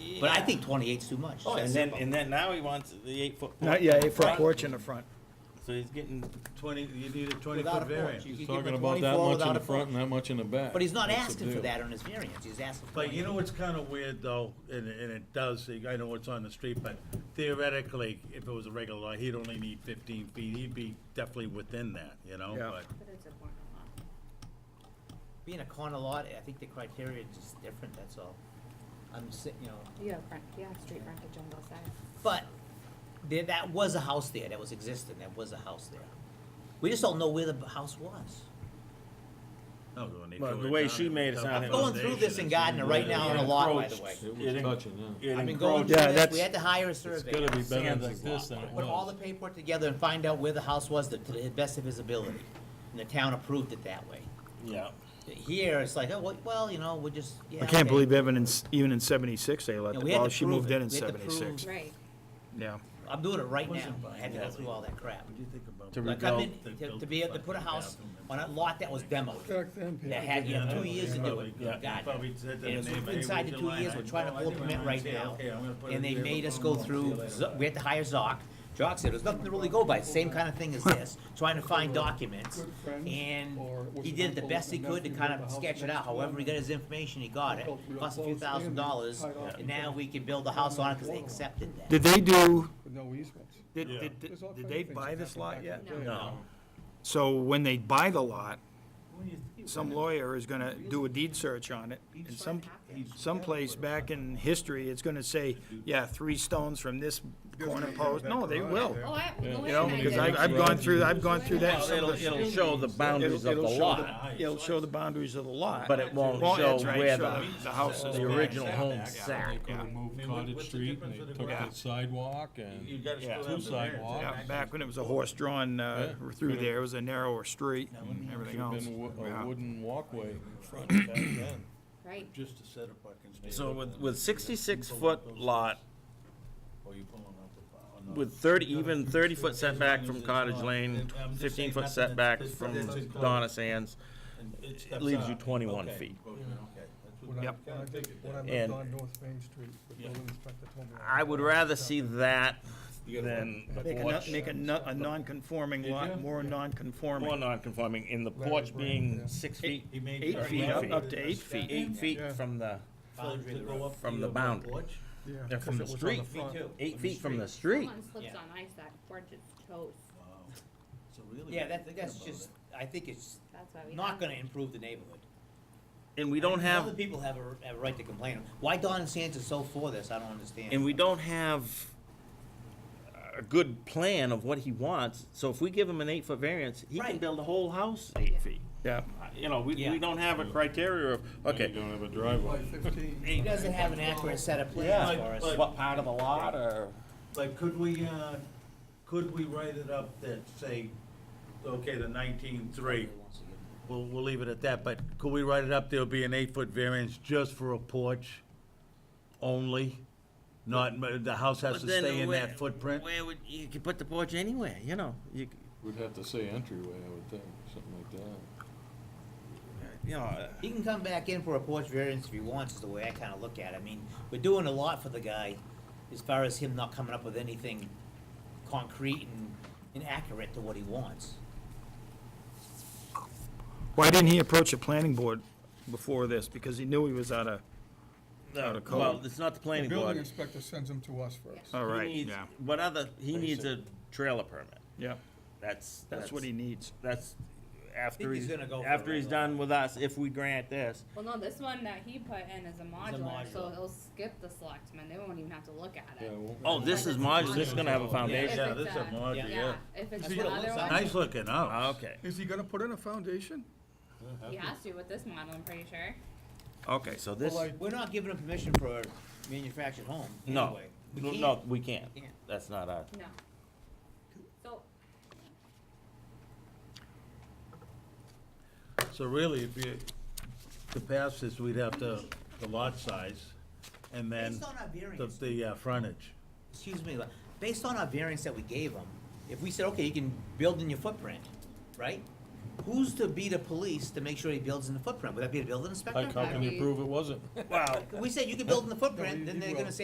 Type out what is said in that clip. But I think 28's too much. Oh, And then, and then now he wants the eight foot. Not, yeah, for a porch in the front. So he's getting, Twenty, you need a twenty Without a foot porch, variance. you He's could give talking him about that 24 much without in a the front porch. and that much in the back. But he's not What's the asking for deal? that on his variance, he's asking for But you know 28. what's kinda weird though, and, and it does, I know it's on the street, but theoretically, if it was a regular lot, he'd only need fifteen feet, he'd be definitely within that, you know, Yeah. but. But it's a corner lot. Being a corner lot, I think the criteria is just different, that's all. I'm sitting, you know, You have front, you have street frontage on both sides. but there, that was a house there, that was existing, that was a house there. We just don't know where the b- house was. no, when they Well, tore the it way down, she it was made it a sound, it was- Going through this in foundation. Gardner right now on a lot, by the way. It It was en- touching, yeah. it I've been going encroached. through Yeah, this, that's- we had to hire a It's surveyor. gonna be better Sands like is this lot. than it Put all the was. paperwork together and find out where the house was to to the best of his ability. And the town approved it that way. Yeah, Here, it's like, oh, well- well, you know, we're just, yeah. I okay. can't believe even in, s- even in seventy-six, they let, Yeah, the- we had well, to she prove moved it. in in We had to prove- seventy-six, Right. yeah. I'm doing it right now. Wasn't I had to go through all that crap. What do you think about? To that? re- Like, I'm in, They to, built to be able to the put a fucking house bathroom and- on a lot that was demoed. That had, you Yeah, have two no, years to do probably- it. yeah, Got they it. probably said to And the it's neighbor, hey, inside the would two you like- years, we're trying to Oh, I think implement I'm right gonna say, now. okay, I'm gonna put it And they there, made us but go we'll see through, later. Z- we had to hire Zoc. Zoc said, there's nothing to really go by, same kind of thing as this, trying to find documents. Good friends, And or was he it did the uncle best he and could to nephew kind of built a house sketch it next out, to him? however he got his information, he got it. Built real Plus a few close thousand and dollars, tied off and each now other. we can build the house on it because they accepted that. Did they do, With no easements. did, Yeah. did, There's all did kinds they of things buy that this happen lot back yet? in the day. No. So when they buy the lot, some lawyer is gonna do a deed search on it, and some, someplace back in history, it's gonna say, yeah, three stones from this corner post, no, they will. Oh, I, the You way know, I because did I've, it- I've gone through, I've gone through that. well, it'll, it'll show the boundaries of the It'll- it'll show lot, the- It'll show the boundaries of the lot. but it won't Well, show that's right, where show the, The house is. the original home They sat. could have moved mean, what- Cottage what's the Street and difference they of the took ground? the sidewalk and. You gotta Yeah. still Two have the variance. sidewalk. Yeah, back when it was a horse-drawn, uh, Yeah. through there, it was a narrower street and Should've everything been else. a wo- Yeah. A wooden walkway in front back then. Right. Just a set of parking spaces. So with, with sixty-six foot lot, Or you Oh, pulling up the oh, file, or not. with thirty, even thirty foot setback from Cottage Lane, I'm just fifteen saying foot nothing setback that's- from that's- that's- Donna Sands, And steps it leaves you out. twenty-one Okay. feet. Okay, okay. That's what When I- Yep. When I when I lived And- on North Main Street, the building inspector told me. I would rather see that than the Make a, no- porch. make a, no- a non-conforming lot more More non-conforming. non-conforming, in the Larry porch Brown, being yeah. six feet, He made Eight thirty feet, up, feet. up to eight feet. eight feet Yeah. from the, Boundary to go up From to the your boundary. porch. Yeah, they're 'cause from the it was on street. front. Eight feet from the street. Someone slips on ice, that porch is toast. Wow. So really. Yeah, what that, you that's think about just, it. I think it's That's why we. not have- gonna improve the neighborhood. And we don't Other have, people have a, have a right to complain. Why Don Sands is so for this, I don't understand. and we don't have a good plan of what he wants, so if we give him an eight-foot variance, he can Right. build a whole house eight feet. Yeah, Uh, You know, we, Yeah. we don't have a criteria of, You okay, don't have a By driveway. 15. He doesn't have an accurate set of plans for Yeah. us. But- what part of the lot, or? But could we, uh, could we write it up that say, okay, the nineteen-three, we'll, we'll leave it at that, but could we write it up, there'll be an eight-foot variance just for a porch only? Not, the house has to stay in that footprint? Where would, you could put the porch anywhere, you know, you, c- We'd have to say entryway, I would think, something like that. you know, uh, He can come back in for a porch variance if he wants, is the way I kinda look at it. I mean, we're doing a lot for the guy as far as him not coming up with anything concrete and, and accurate to what he wants. why didn't he approach the planning board before this? Because he knew he was out of, Out of uh, well, code. it's not the The planning building board. inspector sends them to us first. all He right, needs- yeah, What other, he needs a trailer permit, yeah, that's. that's what he needs. That's after think he's he's, gonna go for after a he's regular. done with us, if we grant this. Well, no, this one that he put in is a modular, so modular. it'll skip the selectmen, they won't even have to look at Yeah, it. it won't- Oh, this is modular, this is gonna have a If foundation. Yeah, it's that's a mod, yeah. If it's That's what it the other looks like. one, Nice looking house. Ah, Okay, Is he gonna put in a foundation? he has to with this model, I'm pretty sure. okay, so this, Well, I- We're not giving him permission for a manufactured home no, anyway. We no, can't. no, we can't, Can't. that's not our, No. So, So really, if you, to pass this, we'd have to, the lot size, and then Based on our the, variance, the uh, frontage. excuse me, based on our variance that we gave him, if we said, okay, you can build in your footprint, right? Who's to be the police to make sure he builds in the footprint? Would that be the building inspector? Like, how can you prove it wasn't? well, If We said you can build in the No, footprint, he- then he they're gonna will. say